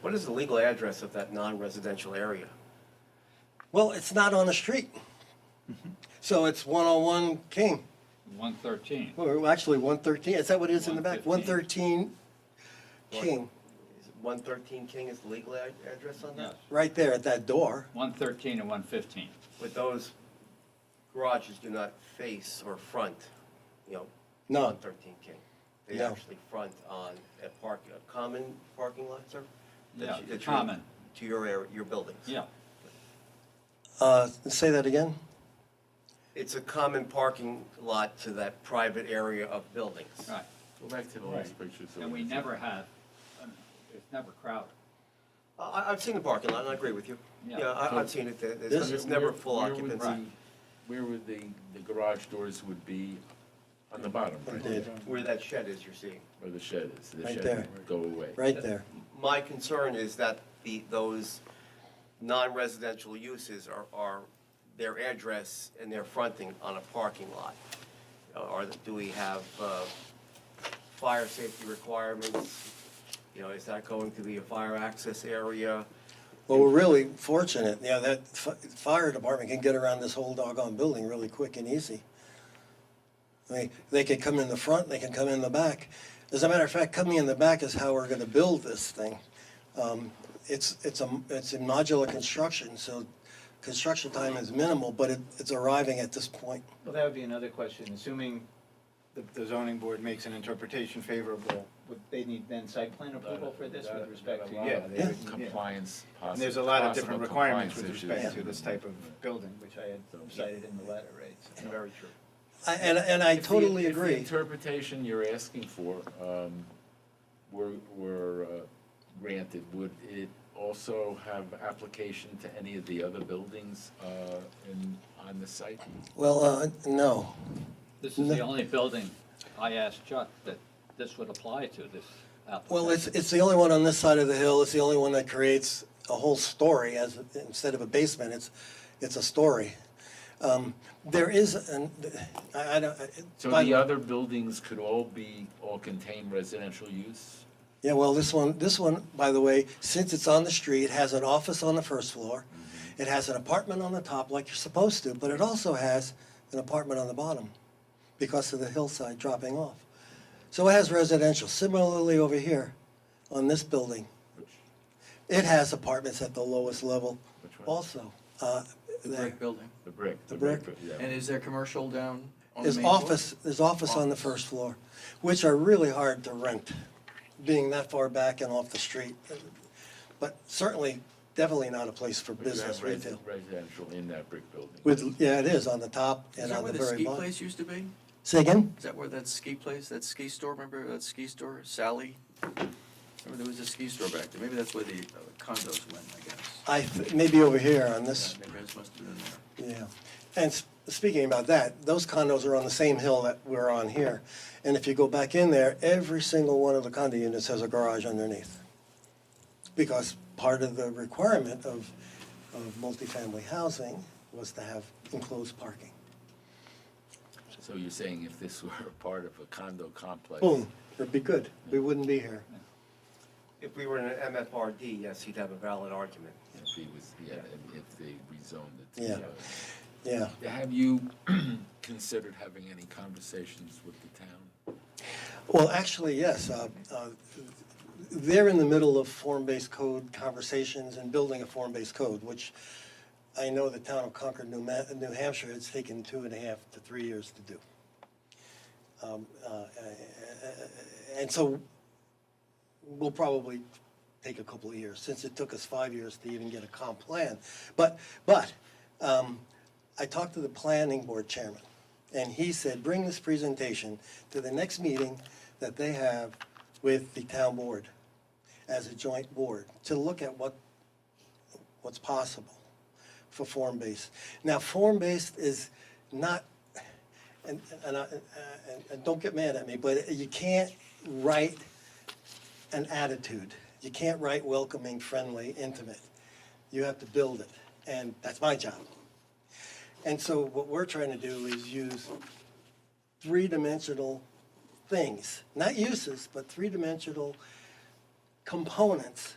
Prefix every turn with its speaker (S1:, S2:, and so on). S1: What is the legal address of that non-residential area?
S2: Well, it's not on the street. So it's 101 King,
S3: One thirteen.
S2: or actually 113, is that what it is in the back? 113 King,
S1: Is it 113 King is the legal ad- address on
S3: Yes,
S1: that?
S2: right there at that door.
S3: one thirteen and one fifteen.
S1: But those garages do not face or front, you know,
S2: No,
S1: 113 King. They
S2: No.
S1: actually front on a park, a common parking lot, sir? That's-
S3: Yeah,
S1: that's your-
S3: common,
S1: To your area, your buildings?
S3: yeah.
S2: uh, say that again?
S1: It's a common parking lot to that private area of buildings.
S3: Right,
S4: Go back to the last picture. so
S3: and we
S4: can see.
S3: never have, um, it's never crowded.
S1: I- I, I've seen the parking lot, and I agree with you.
S3: Yeah.
S1: Yeah, I, I've seen it, there. it's, it's never full
S4: Where would
S1: occupancy.
S4: the- Where would the, the garage doors would be on the bottom,
S2: I
S4: right?
S2: did,
S1: Where that shed is, you're seeing.
S4: Where the shed is, the
S2: Right
S4: shed
S2: there.
S4: would go away.
S2: right there.
S1: My concern is that the, those non-residential uses are, are their address and their fronting on a parking lot. Or do we have, uh, fire safety requirements? You know, is that going to be a fire access area?
S2: Well, we're really fortunate, you know, that f- fire department can get around this whole doggone building really quick and easy. I mean, they could come in the front, they can come in the back. As a matter of fact, coming in the back is how we're gonna build this thing. Um, It's, it's a, it's a modular construction, so construction time is minimal, but it, it's arriving at this point.
S5: Well, that would be another question, assuming the the zoning board makes an interpretation favorable, would they need then site plan approval for this with respect to?
S4: Yeah,
S5: yeah.
S4: there's compliance, possi-
S5: And there's a lot
S4: possible
S5: of different requirements with
S4: compliance
S5: respect to
S4: issues.
S5: this type of building, which I had cited in the letter, right? so-
S1: Very true.
S2: I- And, and I
S4: If the-
S2: totally
S4: if the
S2: agree.
S4: interpretation you're asking for um, were, were uh, granted, would it also have application to any of the other buildings uh, in, on the site?
S2: Well, uh, no,
S3: This is the only building I asked Chuck that this would apply to, this application.
S2: Well, it's, it's the only one on this side of the hill, it's the only one that creates a whole story as, instead of a basement, it's, it's a story. Um, There is, an I, I don't. I-
S4: So
S2: by-
S4: the other buildings could all be, all contain residential use?
S2: Yeah, well, this one, this one, by the way, since it's on the street, has an office on the first floor.
S4: Mm-hmm.
S2: It has an apartment on the top like you're supposed to, but it also has an apartment on the bottom because of the hillside dropping off. So it has residential. Similarly over here on this building,
S4: Which-
S2: It has apartments at the lowest level
S4: Which one?
S2: also. uh, there.
S6: brick building.
S4: The brick.
S2: The brick.
S4: yeah.
S6: And is there commercial down on the
S2: There's
S6: main floor?
S2: office, there's office on the first floor, which are really hard to rent, being that far back and off the street. But certainly, definitely not a place for
S4: But you have
S2: business
S4: resi-
S2: retail.
S4: Residential in that brick building.
S2: With, yeah, it is on the top
S6: Is
S2: and
S6: that
S2: on
S6: where
S2: the
S6: the
S2: very
S6: ski
S2: bottom.
S6: place used to be?
S2: Say again?
S6: Is that where that ski place, that ski store, remember that ski store, Sally? Remember there was a ski store back there, maybe that's where the uh, condos went, I guess.
S2: I, th- maybe over here on this
S6: Yeah, Maybe this must have been there.
S2: Yeah, and s- speaking about that, those condos are on the same hill that we're on here. And if you go back in there, every single one of the condo units has a garage underneath. Because part of the requirement of, of multifamily housing was to have enclosed parking.
S4: So you're saying if this were a part of a condo complex?
S2: Boom, it'd be good, we wouldn't be here.
S1: If we were in an MFRD, yes, he'd have a valid argument.
S4: If he was, yeah, if- if they rezoned it.
S2: Yeah. Yeah,
S4: Yeah. Have you considered having any conversations with the town?
S2: well, actually, yes, uh, uh, they're in the middle of form-based code conversations and building a form-based code, which I know the town of Concord, New Ma- New Hampshire, it's taken two and a half to three years to do. Um, uh, And so we'll probably take a couple of years, since it took us five years to even get a comp plan. But, but, um, I talked to the planning board chairman, and he said, bring this presentation to the next meeting that they have with the town board as a joint board, to look at what, what's possible for form-based. Now, form-based is not, and, and, I- and, and don't get mad at me, but you can't write an attitude. You can't write welcoming, friendly, intimate. You have to build it, and that's my job. And so what we're trying to do is use three-dimensional things, not uses, but three-dimensional components